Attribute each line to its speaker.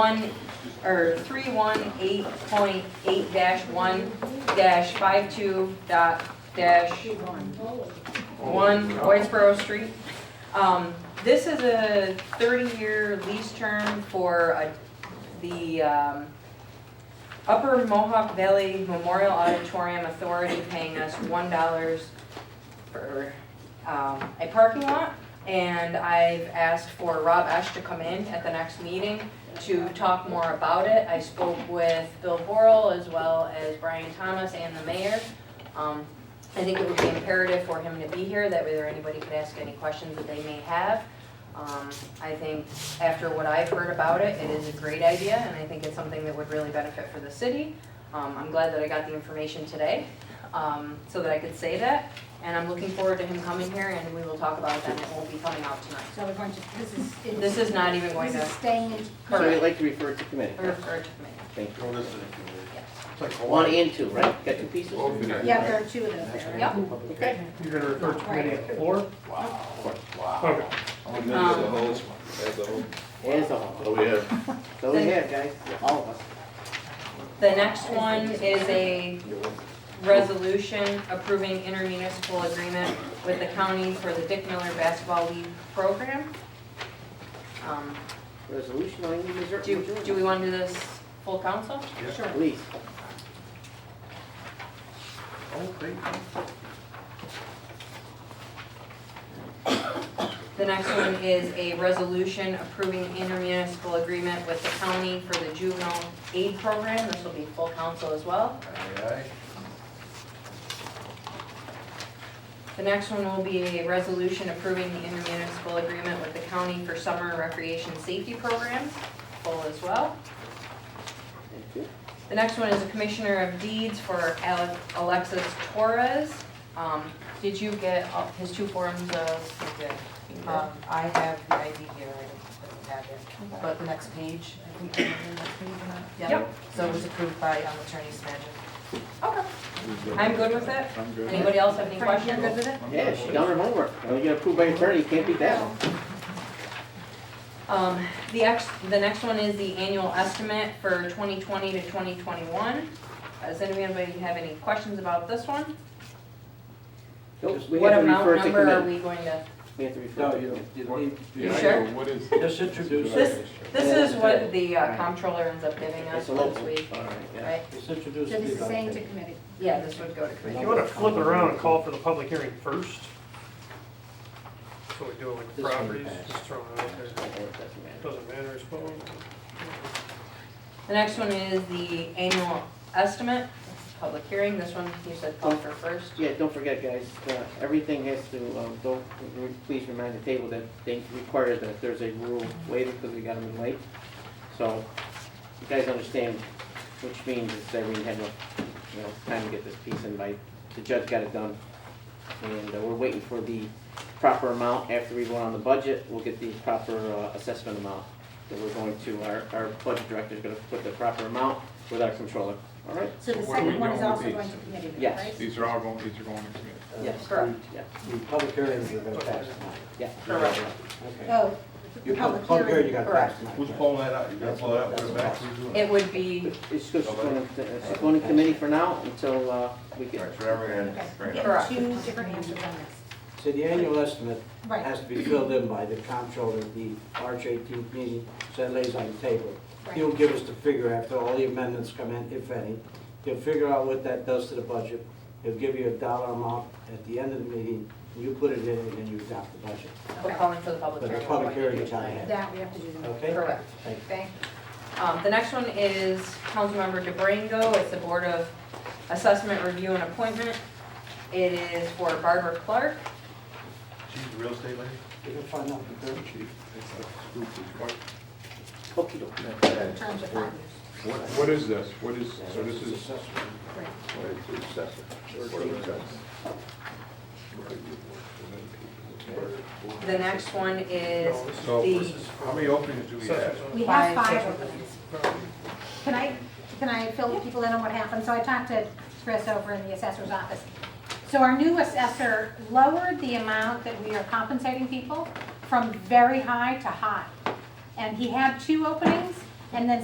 Speaker 1: one, or three one eight point eight dash one dash five two dot dash one Whitesboro Street. Um, this is a thirty-year lease term for uh, the, um, Upper Mohawk Valley Memorial Auditorium Authority paying us one dollars for, um, a parking lot. And I've asked for Rob Esch to come in at the next meeting to talk more about it. I spoke with Bill Borrell as well as Brian Thomas and the mayor. Um, I think it would be imperative for him to be here, that way there anybody could ask any questions that they may have. Um, I think after what I've heard about it, it is a great idea, and I think it's something that would really benefit for the city. Um, I'm glad that I got the information today, um, so that I could say that, and I'm looking forward to him coming here, and we will talk about it then, it won't be coming out tonight.
Speaker 2: So we're going to, this is. it's-
Speaker 1: This is not even going
Speaker 2: This
Speaker 1: to
Speaker 2: is staying in.
Speaker 3: So we'd like to refer it to committee.
Speaker 1: refer to me,
Speaker 3: Thank you.
Speaker 4: Throw this in.
Speaker 1: yes.
Speaker 4: It's like
Speaker 3: One
Speaker 4: Hawaii.
Speaker 3: and two, right? Got two pieces?
Speaker 2: Yeah, there are two of those there.
Speaker 1: Yep.
Speaker 3: Okay.
Speaker 5: You're gonna refer to committee at four?
Speaker 4: Wow, wow.
Speaker 5: Okay.
Speaker 6: I'm gonna miss the
Speaker 3: Um,
Speaker 1: Um,
Speaker 6: whole, that's the whole.
Speaker 3: There's the whole.
Speaker 6: What we have?
Speaker 3: So we have, guys, all of us.
Speaker 1: The next one is a resolution approving intermunicipal agreement with the county for the Dick Miller Basketball League program. Um,
Speaker 3: Resolution on Indian Missouri.
Speaker 1: Do, do we want to do this full council?
Speaker 2: Sure.
Speaker 3: Please.
Speaker 4: Oh, great.
Speaker 1: The next one is a resolution approving intermunicipal agreement with the county for the juvenile aid program. This will be full council as well.
Speaker 4: Aye, aye.
Speaker 1: The next one will be a resolution approving the intermunicipal agreement with the county for summer recreation safety programs, full as well.
Speaker 3: Thank you.
Speaker 1: The next one is a Commissioner of Deeds for Ale- Alexis Torres. Um, Did you get all- his two forms of,
Speaker 7: Um, I have the ID here, I don't have it, but the next page, I think, the next page or not? Yeah,
Speaker 1: Yep.
Speaker 7: so it was approved by um, Attorney Smagic.
Speaker 1: okay, I'm good with it.
Speaker 6: I'm good.
Speaker 1: Anybody else have any
Speaker 2: Frank, you're
Speaker 1: questions?
Speaker 2: good with it?
Speaker 6: I'm
Speaker 3: Yeah,
Speaker 6: good.
Speaker 3: she done her homework. Now you got approved by attorney, can't beat that one.
Speaker 1: Um, The ex, the next one is the annual estimate for 2020 to 2021. Does anybody have any questions about this one?
Speaker 3: Nope, we
Speaker 1: What
Speaker 3: have to
Speaker 1: amount,
Speaker 3: refer to
Speaker 1: number are
Speaker 3: committee.
Speaker 1: we going to?
Speaker 3: We have to refer
Speaker 8: No,
Speaker 3: to
Speaker 8: you,
Speaker 3: committee.
Speaker 8: you leave,
Speaker 6: Yeah, I
Speaker 1: sure?
Speaker 6: know, what is?
Speaker 8: just introduce it,
Speaker 1: This, this is what the uh, comptroller ends up giving us
Speaker 3: It's a
Speaker 1: once
Speaker 3: local.
Speaker 1: we,
Speaker 3: All right, yeah.
Speaker 1: right?
Speaker 8: just introduce
Speaker 2: So
Speaker 8: it.
Speaker 2: this is staying to committee.
Speaker 1: Yeah, this would go to committee.
Speaker 5: Do you wanna flip it around and call for the public hearing first? So we do it with
Speaker 3: This
Speaker 5: the
Speaker 3: one
Speaker 5: properties,
Speaker 3: passed.
Speaker 5: just throwing it out there.
Speaker 3: Or it doesn't matter.
Speaker 5: Doesn't matter, I suppose.
Speaker 1: The next one is the annual estimate, public hearing, this one you said call for first.
Speaker 3: Yeah, don't forget, guys, uh, everything has to, um, don't, re- please remind the table that they require that there's a rule waiver because we got them in late. So you guys understand, which means is that we had no, you know, time to get this piece in by, the judge got it done. And uh, we're waiting for the proper amount. After we vote on the budget, we'll get the proper uh, assessment amount that we're going to, our, our budget director's gonna put the proper amount with our controller, all right?
Speaker 2: So the
Speaker 6: Where are we
Speaker 2: second one is
Speaker 6: going with
Speaker 2: also going
Speaker 6: these?
Speaker 2: to committee, right?
Speaker 3: Yes.
Speaker 6: These are all going, these are going to committee.
Speaker 3: Yes.
Speaker 1: Correct.
Speaker 3: Yeah.
Speaker 8: Uh, The public hearings are gonna pass tonight,
Speaker 3: Yeah.
Speaker 1: Correct.
Speaker 8: okay.
Speaker 2: Oh, the
Speaker 8: You put the
Speaker 2: public
Speaker 8: public hearing, you
Speaker 2: hearing.
Speaker 8: gotta
Speaker 1: Correct.
Speaker 8: pass tonight.
Speaker 4: Who's pulling that out? You gotta pull that out, put it back. Who's doing it?
Speaker 1: It would be,
Speaker 3: It's just going to, it's going to committee for now until uh, we
Speaker 4: All
Speaker 3: get,
Speaker 4: right, so now we're gonna
Speaker 2: Okay,
Speaker 4: bring it
Speaker 2: get
Speaker 4: up.
Speaker 1: Correct.
Speaker 2: two different answers on this.
Speaker 8: So the annual estimate
Speaker 2: Right,
Speaker 8: has to be filled in by the comptroller at the March eighteenth meeting, so it lays on the table.
Speaker 2: right.
Speaker 8: He'll give us the figure after all the amendments come in, if any. He'll figure out what that does to the budget. He'll give you a dollar amount at the end of the meeting, and you put it in, and then you adopt the budget.
Speaker 1: we're
Speaker 2: Okay.
Speaker 1: calling for the public
Speaker 8: But
Speaker 1: hearing.
Speaker 8: the public hearing is not ahead,
Speaker 2: That we have to do. then.
Speaker 8: okay?
Speaker 1: Correct.
Speaker 8: Thank you.
Speaker 2: Thank
Speaker 1: Um, the next one is Councilmember DeBrango, it's the Board of Assessment Review and Appointment. It is for Barbara Clark.
Speaker 4: She's a real estate lady?
Speaker 8: You can find out the third.
Speaker 4: She- it's a group that's quite-
Speaker 3: okie dokie.
Speaker 2: you. Terms of five years.
Speaker 6: What, what is this? What is, so this
Speaker 8: It's
Speaker 6: is,
Speaker 8: assessment.
Speaker 2: Right.
Speaker 1: The next one is
Speaker 5: No, this is-
Speaker 4: So,
Speaker 1: the,
Speaker 4: how many openings do we have?
Speaker 5: Sessions on-
Speaker 2: We have
Speaker 7: Five
Speaker 2: five
Speaker 7: separate
Speaker 2: openings.
Speaker 5: no.
Speaker 2: Can I, can I fill people in on what happened? So I talked to Chris over in the assessor's office. So our new assessor lowered the amount that we are compensating people from very high to high. And he had two openings, and then